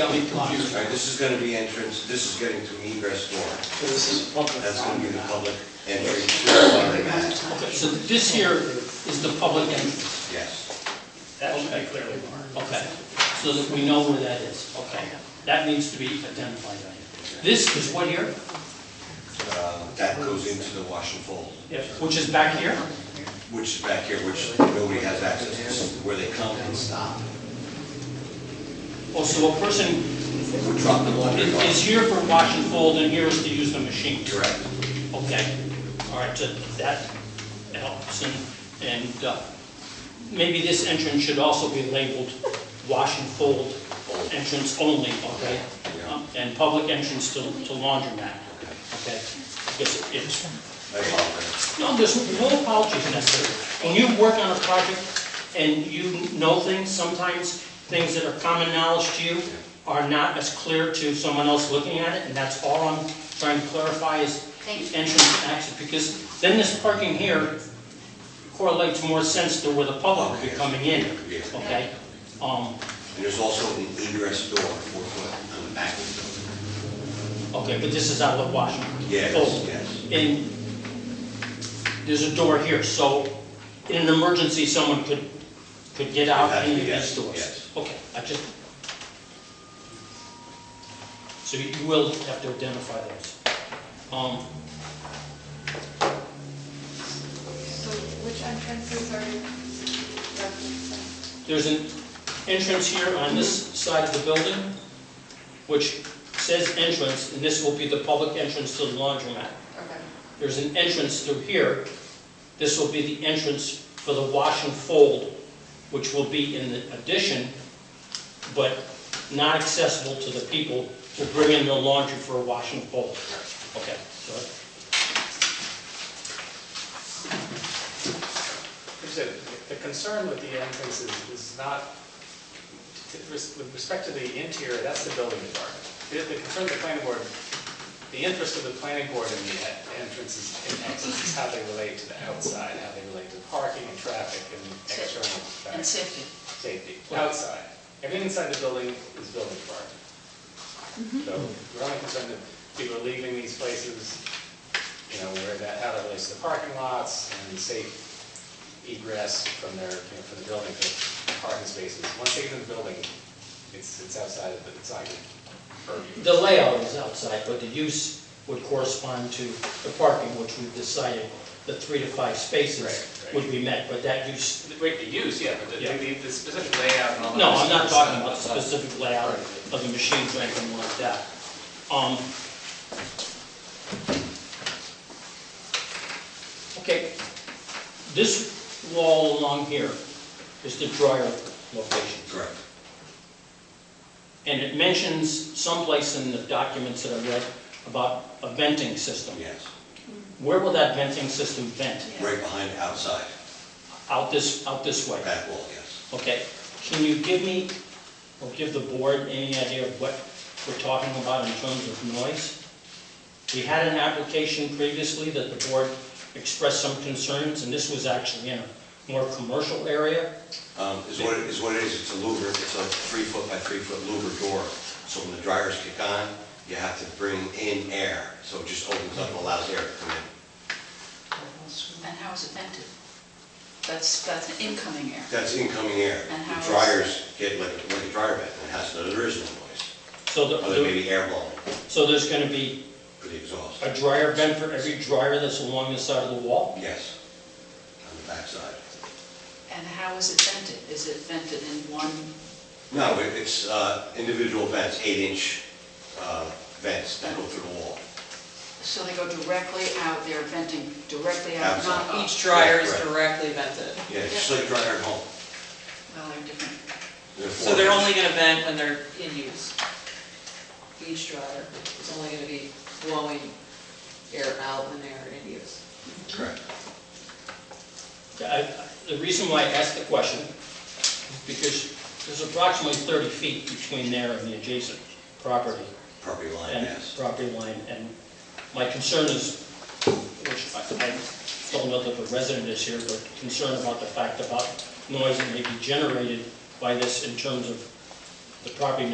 Got me All confused. right, this is gonna be entrance, this is getting to egress door. So This is public. That's gonna be the public entry to the laundromat. Okay, so this here is the public entrance. Yes, That should be clearly marked. Okay, so that we know where that is. Okay, that needs to be identified right here. This is what here? Uh, that goes into the wash and fold, Which is back here? which is back here, which nobody has access to, This is where they come and stop. Oh, so a person We drop the laundry i- is off. here for wash and fold and here is to use the machine? Correct. Okay, all right, so that helps, and, and uh, maybe this entrance should also be labeled wash and fold entrance only, okay? Yeah. Um, And public entrance to to laundromat, okay? Because it's, I apologize. no, there's no apologies necessary. When you work on a project and you know things, sometimes things that are common knowledge to you are not as clear to someone else looking at it, and that's all I'm trying to clarify is Thank you. entrance and exit, because then this parking here correlates more sense to where the public would be coming in, Yeah. okay? Um, And there's also an egress door, four foot on the back of the building. okay, but this is out of the Washington. Yes, Fold. yes. And there's a door here, so in an emergency, someone could, could get out Yes, any of yes, these doors? yes. Okay, I just... So you will have to identify those. Um, So which entrances are referenced? There's an entrance here on this side of the building, which says entrance, and this will be the public entrance to the laundromat. Okay, There's an entrance through here. This will be the entrance for the wash and fold, which will be in the addition, but not accessible to the people who bring in their laundry for a wash and fold. Okay, so Here's the- The concern with the entrance is, is not, with respect to the interior, that's the building department. The the concern of the planning board, the interest of the planning board in the en- entrances and exits is how they relate to the outside, how they relate to parking and traffic and external and factors, safety. safety, outside. Everything inside the building is building department. Mm-hmm. So we're only concerned that people are leaving these places, you know, where that, how that relates to the parking lots and safe egress from their, you know, from the building to parking spaces. Once they get in the building, it's, it's outside of, the- it's not your purview. The layout is outside, but the use would correspond to the parking, which we've decided the three to five spaces Right, right. would be met, but that use, The- Wait, the use, yeah, but the, Yeah. the the specific layout and all that. no, I'm not is- talking about the specific layout of the machines or anything like that. Um, Okay, this wall along here is the dryer location. Correct. And it mentions someplace in the documents that I read about a venting system. Yes, Where will that venting system vent? right behind outside, Out this, out this way? back wall, yes. Okay, can you give me, or give the board any idea of what we're talking about in terms of noise? We had an application previously that the board expressed some concerns, and this was actually in a more commercial area. Um, Is what, it- is what it is, it's a louver, it's a three foot by three foot louver door. So when the dryers kick on, you have to bring in air, so it just opens up and allows air to come in. And how is it vented? That's, that's an incoming air. That's incoming air. And how The is- dryers get like, like a dryer vent, and it has, no- there is no noise, So the- other than maybe air blowing so there's gonna be for the exhaust. a dryer vent for every dryer that's along the side of the wall? Yes, on the backside. And how is it vented? Is it vented in one, No, it- it's uh, individual vents, eight inch uh, vents that go through the wall. so they go directly out, they're venting directly out, not Outside. up? Each dryer is Correct. directly vented. Yeah, it's just like a dryer at home. Well, they're different. So they're only gonna vent when they're in use. Each dryer is only gonna be blowing air out when they're in use. Correct. I- The reason why I asked the question is because there's approximately 30 feet between there and the adjacent property Property line, and yes. property line, and my concern is, which I I don't know that the resident is here, but concern about the fact about noise that may be generated by this in terms of the property